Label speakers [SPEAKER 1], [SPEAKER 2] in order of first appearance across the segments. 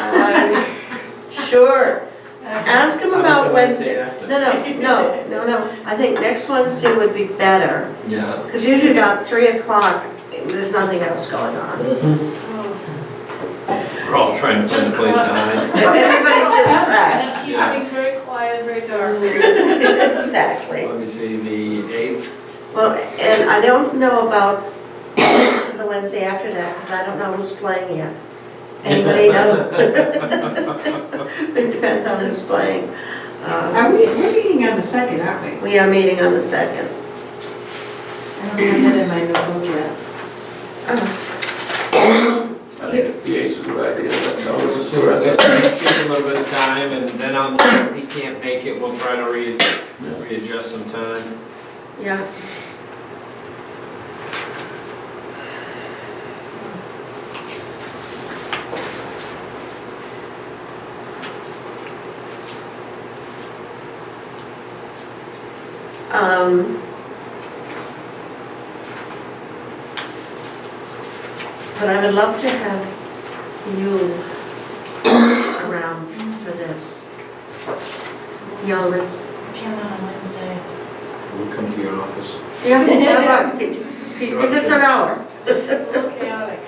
[SPEAKER 1] Yeah, I- sure. Ask him about Wednesday.
[SPEAKER 2] after.
[SPEAKER 1] No, no, no, no, no. I think next Wednesday would be better,
[SPEAKER 2] Yeah,
[SPEAKER 1] because usually about 3 o'clock, there's nothing else going on.
[SPEAKER 2] we're all trying to find a place to hide.
[SPEAKER 1] Everybody's just crashed.
[SPEAKER 3] And keep
[SPEAKER 2] Yeah.
[SPEAKER 3] things very quiet, very dark.
[SPEAKER 1] Exactly.
[SPEAKER 2] Let me see, the eighth,
[SPEAKER 1] Well, and I don't know about the Wednesday after that, because I don't know who's playing yet. Anybody know? It depends on who's playing. Uh,
[SPEAKER 4] Are we, we're meeting on the second, aren't we?
[SPEAKER 1] We are meeting on the 2nd.
[SPEAKER 4] I don't have that in my notebook yet.
[SPEAKER 5] I think the eight's a good idea, that's all.
[SPEAKER 2] we'll just, let's give a little bit of time, and then on, if he can't make it, we'll try to re, readjust some time.
[SPEAKER 1] Yeah. Um. But I would love to have you around for this. Yoli.
[SPEAKER 3] Came out on Wednesday.
[SPEAKER 2] We'll come to your office.
[SPEAKER 1] Yeah, how about, could you could you give us an hour?
[SPEAKER 3] It's a little chaotic.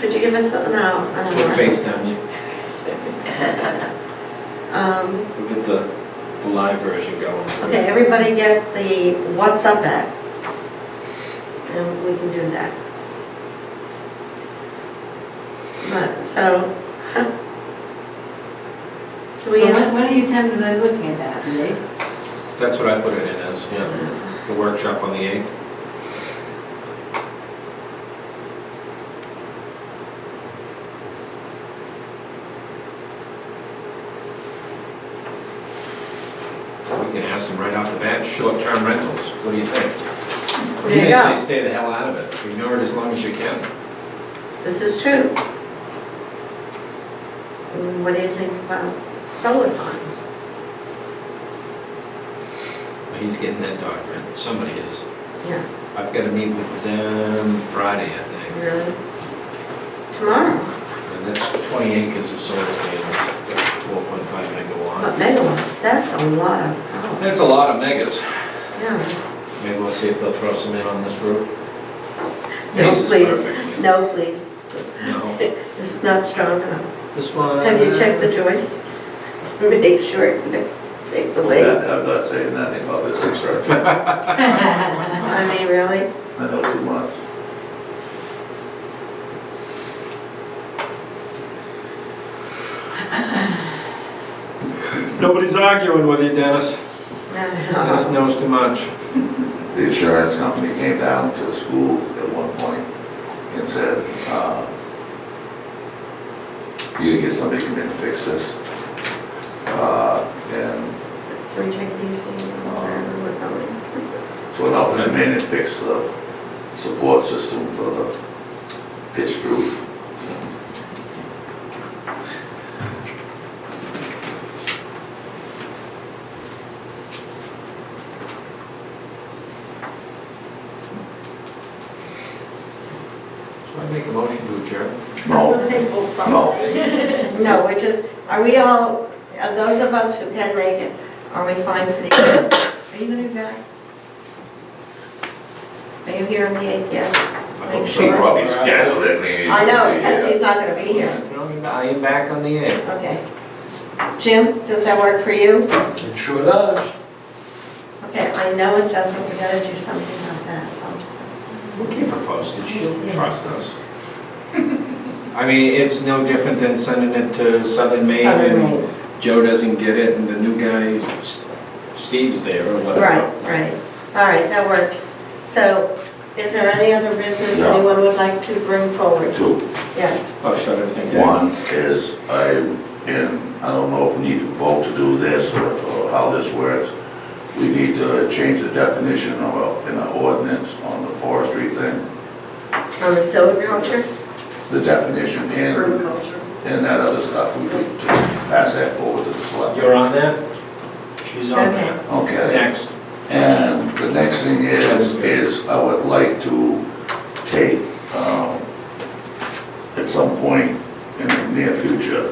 [SPEAKER 1] Could you give us an hour? an
[SPEAKER 2] We'll
[SPEAKER 1] hour?
[SPEAKER 2] FaceTime you.
[SPEAKER 1] Um,
[SPEAKER 2] We'll get the, the live version going.
[SPEAKER 1] Okay, everybody get the what's up at? And we can do that. But, so. So we,
[SPEAKER 4] So when, when are you tend to be looking at that, the eighth?
[SPEAKER 2] That's what I put it in as, yeah, the workshop on the eighth. We can ask them right off the bat, short-term rentals, what do you think?
[SPEAKER 1] there you
[SPEAKER 2] They
[SPEAKER 1] go,
[SPEAKER 2] say stay the hell out of it, ignore it as long as you can.
[SPEAKER 1] this is true. Mm, What do you think about solar farms?
[SPEAKER 2] He's getting that document, somebody is.
[SPEAKER 1] Yeah,
[SPEAKER 2] I've got to meet with them Friday, I think.
[SPEAKER 1] really? Tomorrow,
[SPEAKER 2] And that's 20 acres of solar panels, 4.5 megawatt.
[SPEAKER 1] but megawatts, that's a lot of power.
[SPEAKER 2] That's a lot of megas.
[SPEAKER 1] Yeah,
[SPEAKER 2] Maybe we'll see if they'll throw some in on this roof.
[SPEAKER 1] No,
[SPEAKER 2] This is
[SPEAKER 1] please.
[SPEAKER 2] perfect.
[SPEAKER 1] no, please,
[SPEAKER 2] No,
[SPEAKER 1] this is not strong enough.
[SPEAKER 2] this one.
[SPEAKER 1] Have you checked the joists to make sure it can take the
[SPEAKER 5] Yeah,
[SPEAKER 1] weight?
[SPEAKER 5] I'm not saying nothing about this construction,
[SPEAKER 1] I mean, really?
[SPEAKER 5] I know too much.
[SPEAKER 2] Nobody's arguing with you, Dennis.
[SPEAKER 1] I don't
[SPEAKER 2] Dennis
[SPEAKER 1] know.
[SPEAKER 2] knows too much.
[SPEAKER 5] The insurance company came down to the school at one point and said, uh, you can get somebody to come in and fix this. Uh, And
[SPEAKER 1] Can we check these things out wherever we're going?
[SPEAKER 5] so an outfit come in and fix the support system for the pitched roof.
[SPEAKER 2] So I make a motion to adjourn.
[SPEAKER 5] No, no.
[SPEAKER 1] No, we're just, are we all, are those of us who can make it, are we fine for the eighth? Are you gonna be back? Are you here on the eighth, yes?
[SPEAKER 2] I
[SPEAKER 5] She probably scheduled it, maybe.
[SPEAKER 1] I know, Kenzie's not gonna be here,
[SPEAKER 2] I am back on the air.
[SPEAKER 1] okay. Jim, does that work for you?
[SPEAKER 2] It sure does.
[SPEAKER 1] Okay, I know it doesn't, we gotta do something about that sometime.
[SPEAKER 2] We'll keep her posted, she'll trust us. I mean, it's no different than sending it to Southern Maine
[SPEAKER 1] Southern
[SPEAKER 2] and
[SPEAKER 1] Maine.
[SPEAKER 2] Joe doesn't get it, and the new guy, S- Steve's there or whatever.
[SPEAKER 1] Right, right. All right, that works. So is there any other business
[SPEAKER 5] No.
[SPEAKER 1] anyone would like to bring forward?
[SPEAKER 5] Two.
[SPEAKER 1] Yes.
[SPEAKER 2] Oh, shut everything down.
[SPEAKER 5] One is I, and I don't know if we need to vote to do this or or how this works. We need to change the definition of, a- in an ordinance on the forestry thing,
[SPEAKER 1] On the silviculture?
[SPEAKER 5] the definition and,
[SPEAKER 1] Permaculture.
[SPEAKER 5] and that other stuff. We need to pass that forward to the select.
[SPEAKER 2] You're on that? She's on
[SPEAKER 1] Okay.
[SPEAKER 2] that.
[SPEAKER 5] Okay.
[SPEAKER 2] Next.
[SPEAKER 5] And the next thing is, is I would like to take, um, at some point, in the near future.